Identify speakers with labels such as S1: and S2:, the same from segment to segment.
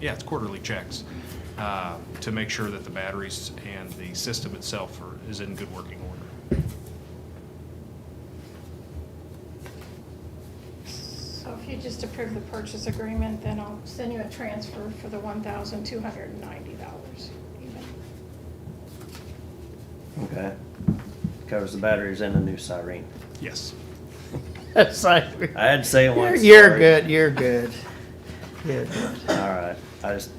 S1: yeah, it's quarterly checks uh, to make sure that the batteries and the system itself are, is in good working order.
S2: So if you just approve the purchase agreement, then I'll send you a transfer for the one thousand two hundred and ninety dollars even.
S3: Okay. Covers the batteries and a new siren.
S1: Yes.
S4: It's like,
S3: I had to say it
S4: you're,
S3: once.
S4: you're
S3: sorry.
S4: good, you're good. Good.
S3: All right. I just,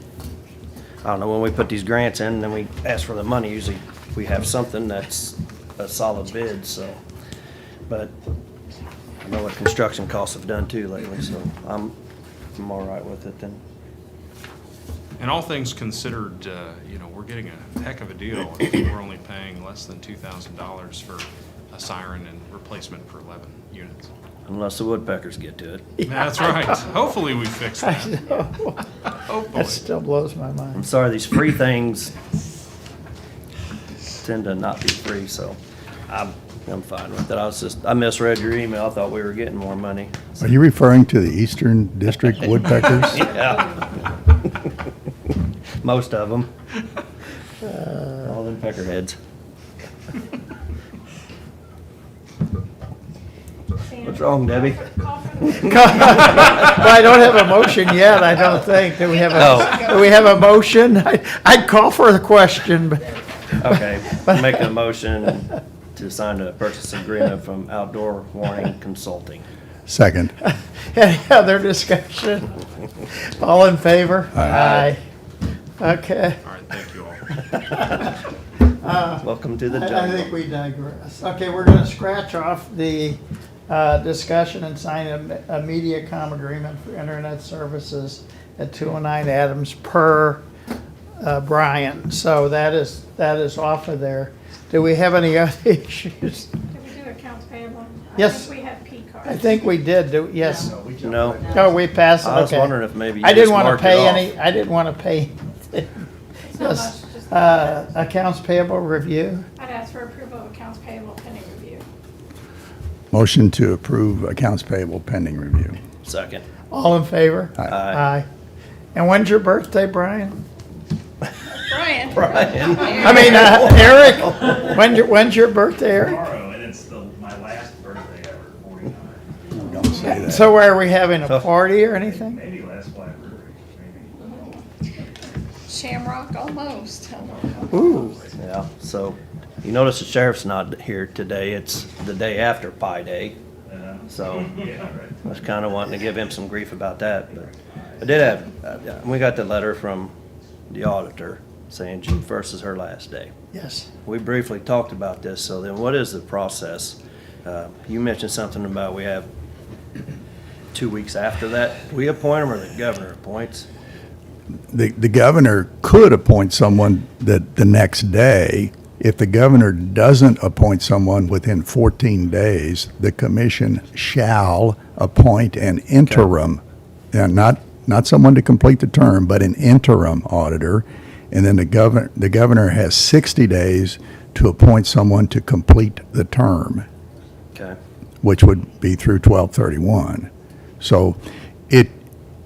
S3: I don't know, when we put these grants in, then we ask for the money, usually we have something that's a solid bid, so. But I know what construction costs have done too lately, so I'm, I'm all right with it then.
S1: And all things considered, uh, you know, we're getting a heck of a deal. I think We're only paying less than $2,000 for a siren and replacement for 11 units.
S3: Unless the woodpeckers get to it.
S1: That's right. Hopefully, we fix
S4: I
S1: that. Oh,
S4: know.
S1: Hopefully.
S4: That still blows my
S3: I'm
S4: mind.
S3: sorry, these free things tend to not be free, so I'm, I'm fine with it. I was just, I misread your email. I thought we were getting more money.
S5: Are you referring to the Eastern District Woodpeckers?
S3: Yeah. Most of them.
S4: Uh.
S3: All them peckerheads. What's wrong, Debbie?
S2: Call for the
S4: Well, I don't have a motion yet, I don't think. Do we have a,
S3: Oh.
S4: do we have a motion? I- I'd call for the question, but
S3: Okay, make a motion to sign a purchase agreement from Outdoor Warning Consulting.
S5: Second.
S4: any other discussion? All in favor? Aye.
S5: Aye.
S4: Okay.
S1: All right, thank you all.
S3: Welcome to the
S4: I I think
S3: jungle.
S4: we digress. Okay, we're gonna scratch off the uh, discussion and sign a a MediaCom agreement for internet services at 209 Adams per uh, Brian. So that is, that is off of there. Do we have any other issues?
S2: Did we do accounts payable?
S4: Yes.
S2: I think we had P cards.
S4: I think we did, do, yes.
S3: No,
S4: Oh, we passed, it, okay.
S3: I was wondering if maybe you
S4: I didn't
S3: just
S4: wanna
S3: marked it
S4: pay
S3: off.
S4: any- I didn't want to pay anything.
S2: It's not
S4: yes.
S2: much, just-
S4: Uh, Accounts payable review?
S2: I'd ask for approval of accounts payable pending review.
S5: Motion to approve accounts payable pending review.
S3: second.
S4: All in favor?
S5: Aye.
S4: Aye. And when's your birthday, Brian?
S2: Brian?
S3: Brian.
S4: I mean, uh, Eric, when's your, when's your birthday, Eric?
S6: tomorrow, and it's the, my last birthday ever, forty-nine.
S5: Don't say that.
S4: So are we having a party or anything?
S6: Maybe last Black River, maybe.
S2: Shamrock, almost.
S4: Ooh,
S3: Yeah, so you notice the sheriff's not here today. It's the day after Pi Day,
S6: Uh,
S3: so.
S6: Yeah, right.
S3: I was kind of wanting to give him some grief about that, but I did have, uh, we got the letter from the auditor saying June first is her last day.
S4: yes.
S3: We briefly talked about this, so then what is the process? Uh, You mentioned something about we have two weeks after that. We appoint them or the governor appoints?
S5: The, the governor could appoint someone that the next day. If the governor doesn't appoint someone within 14 days, the commission shall appoint an interim, and not, not someone to complete the term, but an interim auditor. And then the governor, the governor has 60 days to appoint someone to complete the term
S3: Okay,
S5: which would be through twelve thirty-one. So it,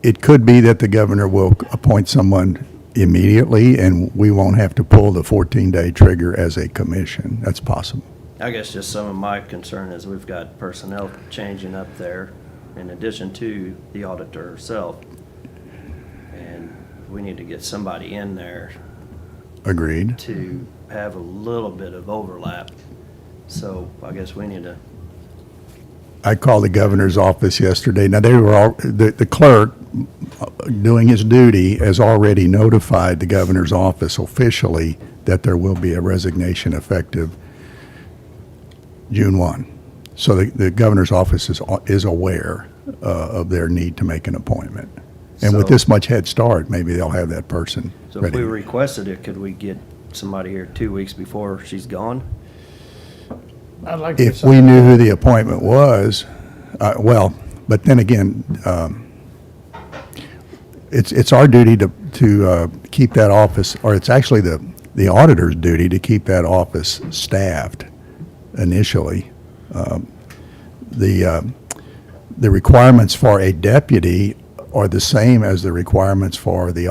S5: it could be that the governor will appoint someone immediately and we won't have to pull the fourteen-day trigger as a commission. That's possible.
S3: I guess just some of my concern is we've got personnel changing up there in addition to the auditor herself. And we need to get somebody in there
S5: Agreed?
S3: to have a little bit of overlap. So I guess we need to,
S5: I called the governor's office yesterday. Now, they were all, the, the clerk, uh, doing his duty, has already notified the governor's office officially that there will be a resignation effective June one. So the, the governor's office is, a- is aware, uh, of their need to make an appointment. And with
S3: So-
S5: this much head start, maybe they'll have that person
S3: so if
S5: ready.
S3: we requested it, could we get somebody here two weeks before she's gone?
S4: I'd like to.
S5: If we knew who the appointment was, uh, well, but then again, um, it's, it's our duty to, to uh, keep that office, or it's actually the, the auditor's duty to keep that office staffed initially. Um, The, uh, the requirements for a deputy are the same as the requirements for the